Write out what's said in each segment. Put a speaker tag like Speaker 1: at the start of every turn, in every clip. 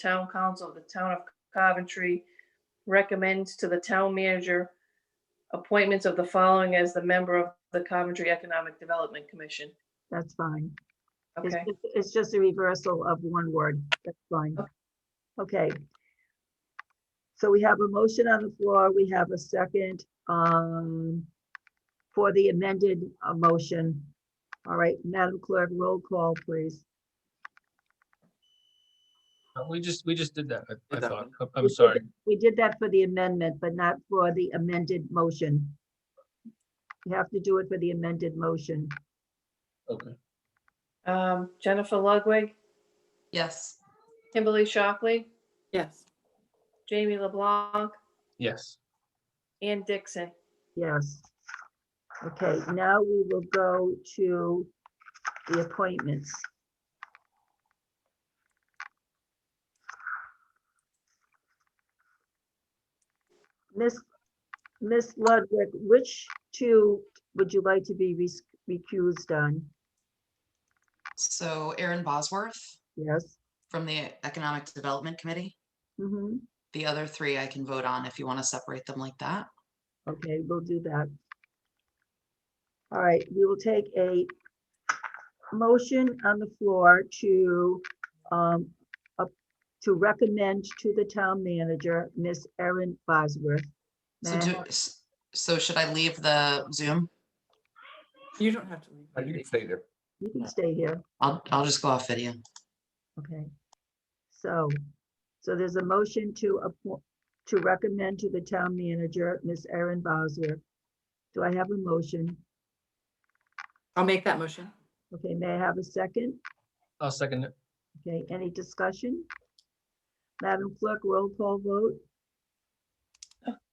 Speaker 1: Town Council of the Town of Coventry recommends to the town manager appointments of the following as the member of the Coventry Economic Development Commission.
Speaker 2: That's fine. It's
Speaker 1: Okay,
Speaker 2: just- It's just a reversal of one word. That's fine.
Speaker 1: Okay.
Speaker 2: Okay. So we have a motion on the floor. We have a second um, for the amended uh, motion. All right, Madam Clerk, roll call, please.
Speaker 3: Uh, We just, we just did that, I- I
Speaker 4: Did that
Speaker 3: thought.
Speaker 4: one.
Speaker 3: I'm- I'm sorry.
Speaker 2: We did that for the amendment, but not for the amended motion. You have to do it for the amended motion.
Speaker 3: Okay.
Speaker 1: um, Jennifer Ludwig,
Speaker 5: Yes.
Speaker 1: Kimberly Shockley,
Speaker 5: Yes.
Speaker 1: Jamie LeBlanc,
Speaker 3: Yes.
Speaker 1: Ann Dixon.
Speaker 2: Yes. Okay, now we will go to the appointments. Miss, Miss Ludwig, which two would you like to be res- recused on?
Speaker 5: So Aaron Bosworth
Speaker 2: Yes?
Speaker 5: from the Economic Development Committee.
Speaker 2: Mm-hmm.
Speaker 5: The other three I can vote on if you want to separate them like that.
Speaker 2: Okay, we'll do that. All right, we will take a motion on the floor to, um, up- to recommend to the town manager, Miss Erin Bosworth.
Speaker 5: So
Speaker 2: May I
Speaker 5: do,
Speaker 2: have-
Speaker 5: s- so should I leave the Zoom?
Speaker 4: You don't have to leave.
Speaker 6: Uh, You can stay there.
Speaker 2: You can stay here,
Speaker 5: I'll, I'll just go off video.
Speaker 2: okay? So, so there's a motion to, appo- to recommend to the town manager, Miss Erin Bosworth. Do I have a motion?
Speaker 7: I'll make that motion.
Speaker 2: Okay, may I have a second?
Speaker 3: I'll second it.
Speaker 2: Okay, any discussion? Madam Clerk, roll call vote?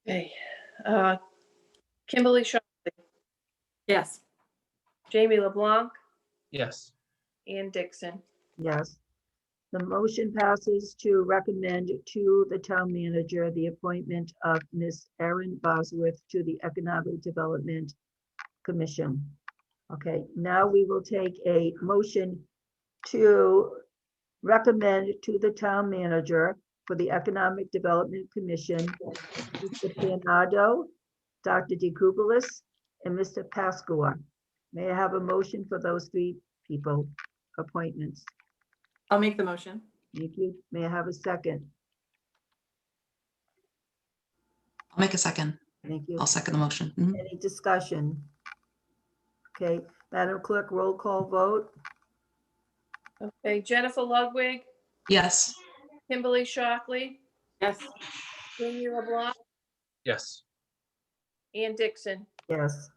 Speaker 1: Okay, uh, Kimberly Shaw,
Speaker 7: Yes.
Speaker 1: Jamie LeBlanc,
Speaker 3: Yes.
Speaker 1: Ann Dixon.
Speaker 2: Yes. The motion passes to recommend to the town manager the appointment of Ms. Erin Bosworth to the Economic Development Commission. Okay, now we will take a motion to recommend to the town manager for the Economic Development Commission, Mr. Panado, Dr. DeKubelis, and Mr. Pascua. May I have a motion for those three people appointments?
Speaker 7: I'll make the motion.
Speaker 2: Thank you. May I have a second?
Speaker 5: I'll make a second.
Speaker 2: Thank you.
Speaker 5: I'll second the motion. Mhm.
Speaker 2: Any discussion? Okay, Madam Clerk, roll call vote?
Speaker 1: Okay, Jennifer Ludwig,
Speaker 5: Yes.
Speaker 1: Kimberly Shockley,
Speaker 7: Yes.
Speaker 1: Jamie LeBlanc,
Speaker 3: Yes.
Speaker 1: Ann Dixon.
Speaker 2: Yes.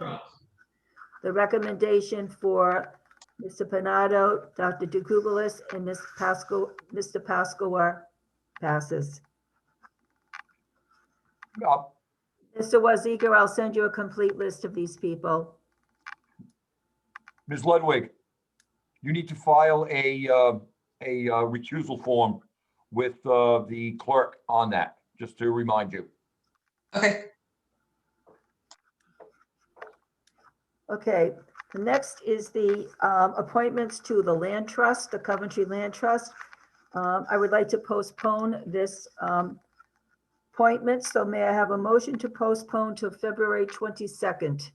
Speaker 2: The recommendation for Mr. Panado, Dr. DeKubelis, and Ms. Pasco, Mr. Pascoe passes.
Speaker 6: Uh,
Speaker 2: Mr. Wazeker, I'll send you a complete list of these people.
Speaker 6: Ms. Ludwig, you need to file a, uh, a uh, recusal form with uh, the clerk on that, just to remind you.
Speaker 5: Okay.
Speaker 2: Okay, the next is the um, appointments to the Land Trust, the Coventry Land Trust. Um, I would like to postpone this um, appointment, so may I have a motion to postpone to February 22nd?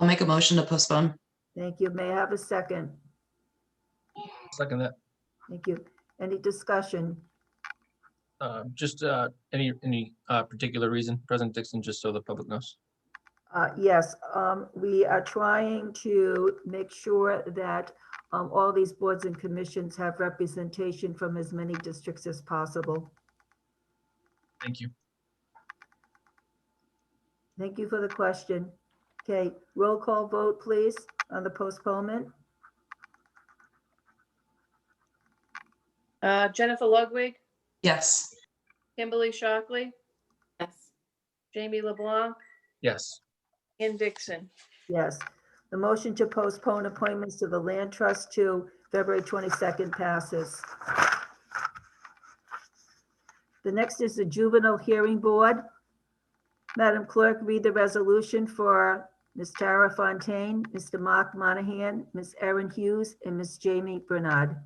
Speaker 5: I'll make a motion to postpone.
Speaker 2: Thank you. May I have a second?
Speaker 3: Second that.
Speaker 2: Thank you. Any discussion?
Speaker 3: Uh, Just uh, any, any uh, particular reason, President Dixon, just so the public knows.
Speaker 2: Uh, Yes, um, we are trying to make sure that um, all these boards and commissions have representation from as many districts as possible.
Speaker 3: Thank you.
Speaker 2: Thank you for the question. Okay, roll call vote, please, on the postponement.
Speaker 1: Uh, Jennifer Ludwig,
Speaker 5: Yes.
Speaker 1: Kimberly Shockley,
Speaker 7: Yes.
Speaker 1: Jamie LeBlanc,
Speaker 3: Yes.
Speaker 1: Ann Dixon.
Speaker 2: Yes. The motion to postpone appointments to the Land Trust to February 22nd passes. The next is the Juvenile Hearing Board. Madam Clerk, read the resolution for Ms. Tara Fontaine, Mr. Mark Monahan, Ms. Erin Hughes, and Ms. Jamie Bernard.